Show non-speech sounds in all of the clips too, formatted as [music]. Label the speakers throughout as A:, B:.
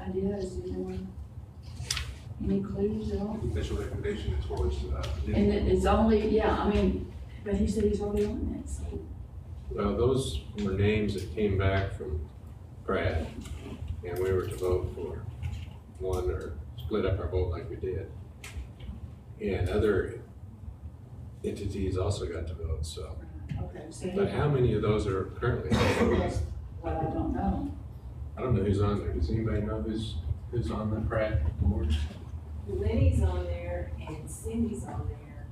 A: ideas, you know? Any clues at all?
B: Official recommendation as far as, uh,
A: And it- it's only, yeah, I mean, but he said he's already on that, so.
C: Well, those were names that came back from Brad, and we were to vote for one or split up our vote like we did. And other entities also got to vote, so.
A: Okay. So he,
C: But how many of those are currently?
A: that's what I don't know.
C: I don't know who's on there. Does anybody know who's, who's on the Brad board?
D: Lenny's on there and Cindy's on there.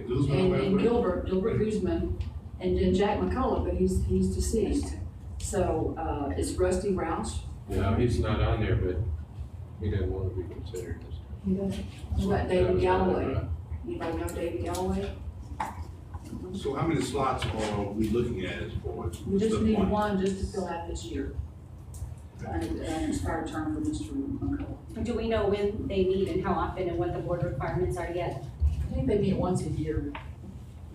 B: and Guzman,
A: And,
B: whatever.
A: and Gilbert, Gilbert Guzman, and then Jack McCullough, but he's, he's deceased. So, uh, it's Rusty Roush.
C: No, he's not on there, but he doesn't want to be considered.
A: He does. What about
C: That
A: David
C: was
A: Galloway?
C: another,
A: Anybody know David Galloway?
B: So how many slots are we looking at as far as?
A: We just
B: the
A: need
B: point?
E: [laughs]
A: one just to fill out this year. An an expired term for Mr. McCullough.
F: Do we know when they meet and how often and what the board requirements are yet?
A: I think they meet once a year.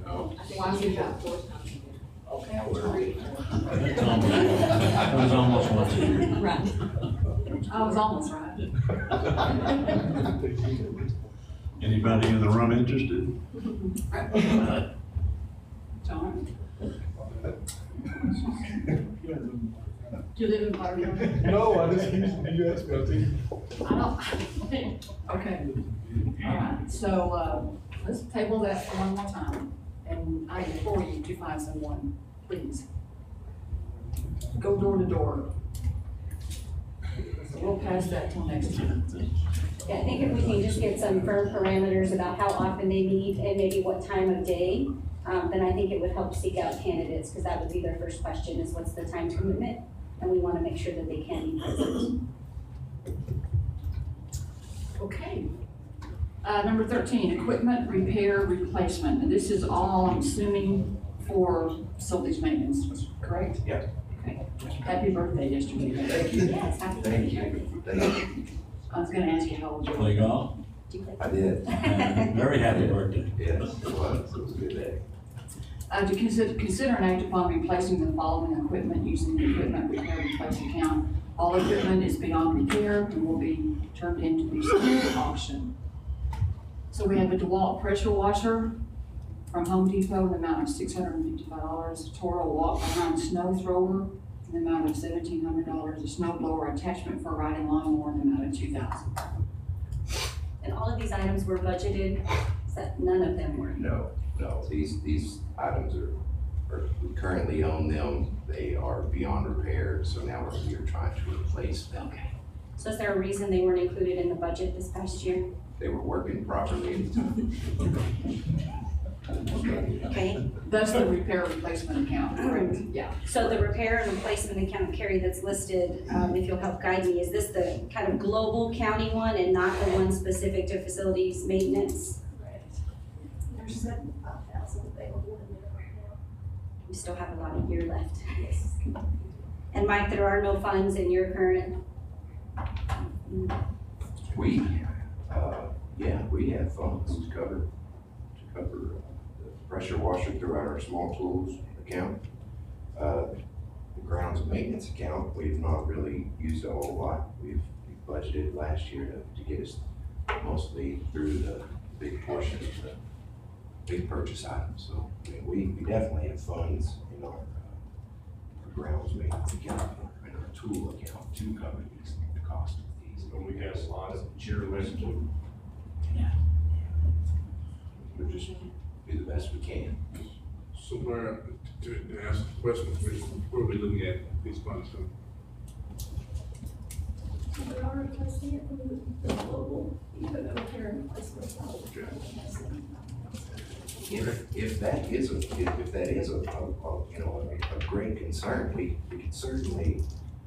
C: uh, No,
D: I
A: Why
D: think
A: is it
D: you
A: that?
D: got four times a
A: Okay, I was already-
G: It's almost- It was almost one to you.
D: year. Right.
A: I was almost right.
G: Anybody in the room interested?
A: John, do you live in Barrio?
E: No, I just, you asked me, I think.
A: I don't. Okay, all right, so, uh, let's table that for one more time, and I implore you to find someone, please. Go door to door. We'll pass that till next time.
F: Yeah, I think if we can just get some firm parameters about how often they meet and maybe what time of day, um, then I think it would help seek out candidates, because that would be their first question, is what's the time commitment? And we want to make sure that they can be present.
A: Okay. Uh, number thirteen, equipment repair replacement, and this is all, I'm assuming, for facilities maintenance, correct?
E: Yeah.
A: Okay, happy birthday yesterday. Thank
F: Yes, happy
G: Thank
F: birthday.
A: I was gonna ask you how old you were.
G: Play golf?
H: I did,
F: [laughs]
G: Very happy birthday.
H: yes, it was, it was a good day.
A: Uh, to consider, consider an act upon replacing the following equipment using the equipment repair replace account. All equipment is beyond repair and will be turned into the same auction. So we have a DeWalt pressure washer from Home Depot in the amount of six hundred and fifty-five dollars. Toro walk behind snow thrower in the amount of seventeen hundred dollars. A snow blower attachment for riding lawnmower in the amount of two thousand.
F: And all of these items were budgeted, so none of them were.
H: No, no, these, these items are, are, we currently own them, they are beyond repair, so now we're, we're trying to replace them.
F: So is there a reason they weren't included in the budget this past year?
H: They were working properly at the time.
F: Okay,
A: That's the repair replacement account, correct? Yeah.
F: so the repair and replacement account, Carrie, that's listed, um, if you'll help guide me, is this the kind of global county one and not the one specific to facilities maintenance?
I: There's uh, seventy-five thousand available in there right now.
F: We still have a lot of year left. And Mike, there are no funds in your current,
H: We, uh, yeah, we have funds to cover, to cover uh, the pressure washer throughout our small tools account. Uh, The grounds maintenance account, we've not really used a whole lot. We've we budgeted last year to, to get us mostly through the big portion of the big purchase items. So, I mean, we, we definitely have funds in our, uh, our grounds maintenance account, and our tool account to cover these, the cost of these.
E: When we have slots, cheer list,
H: We'll just do the best we can.
B: So where, to, to ask the question, where are we looking at these funds from?
I: So we are replacing it from the global, even though repair and replacement.
H: If, if that is a, if, if that is a, a, a, you know, a, a great concern, we, we could certainly,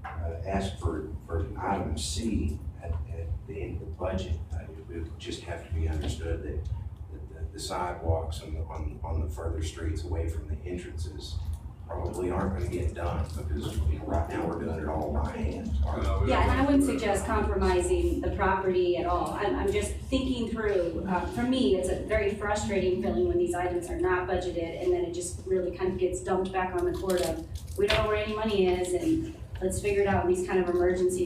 H: uh, ask for, for item C at, at the end of the budget. Uh, It would just have to be understood that, that the- the sidewalks on, the- on, on the further streets away from the entrances probably aren't gonna get done, because, you know, right now, we're doing it all by hand.
C: Oh,
B: Uh,
F: yeah, and I wouldn't suggest compromising the property at all. I'm, I'm just thinking through, uh, for me, it's a very frustrating feeling when these items are not budgeted and then it just really kind of gets dumped back on the court of, we don't know where any money is and let's figure it out in these kind of emergency